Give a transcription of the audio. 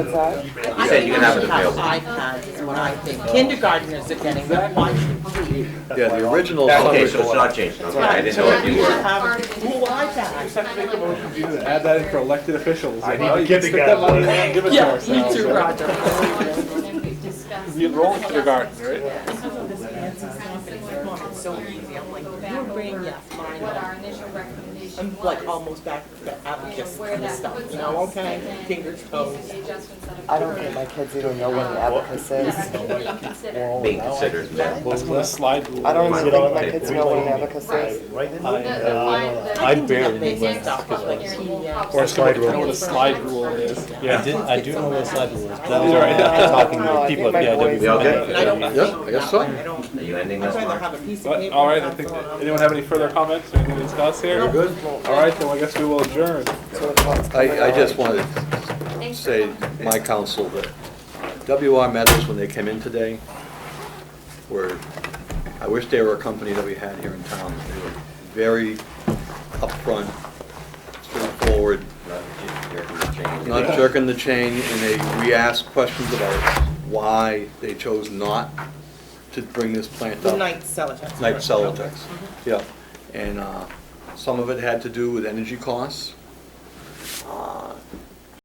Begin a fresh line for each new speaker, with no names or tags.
You said you can have it available.
iPads is what I think kindergartners are getting, but why should we?
Yeah, the original.
Okay, so it's not changed, okay, I didn't know if you
We should
were.
have more iPads.
Add that in for elected officials.
I
you
need
know,
to
you
get
stick
the
that
guy.
money in and give it to
Yeah, me
ourselves.
too, Roger.
You enroll in kindergarten, right?
It's so easy, I'm like, your brain, yes, mine,
what our
no.
initial recommendation
I'm
was.
like almost back to the abacus kind of stuff, you know, okay, fingers, toes.
I don't think my kids even know what an abacus is.
Being considered, yeah.
That's when the slide rule.
I don't
is.
even think my kids know what an abacus is.
uh, I can do
barely
that basic
went
stuff, but like, yeah.
Or somebody
Slide
can know
rule.
what a slide rule is.
I did, I do know what a slide rule is, but I was
All right.
already talking
No, I
with people
think my
at
boys-
BIW.
We all good?
And I don't
Yep,
think,
I guess so.
I don't,
Are you ending
I'd
this
rather
one?
have a piece of
But,
paper.
all right, I
that's
think,
all I'm-
anyone have any further comments or anything to discuss here?
You're good?
All right, then I guess we will adjourn.
I, I just wanted to say, my counsel, that WR Metals, when they came in today, were, I wish they were a company that we had here in town. They were very upfront, straightforward, not jerking the chain, and they, we asked questions about why they chose not to bring this plant
The
up.
night Celotex.
Night Celotex, yeah. And uh, some of it had to do with energy costs. Uh,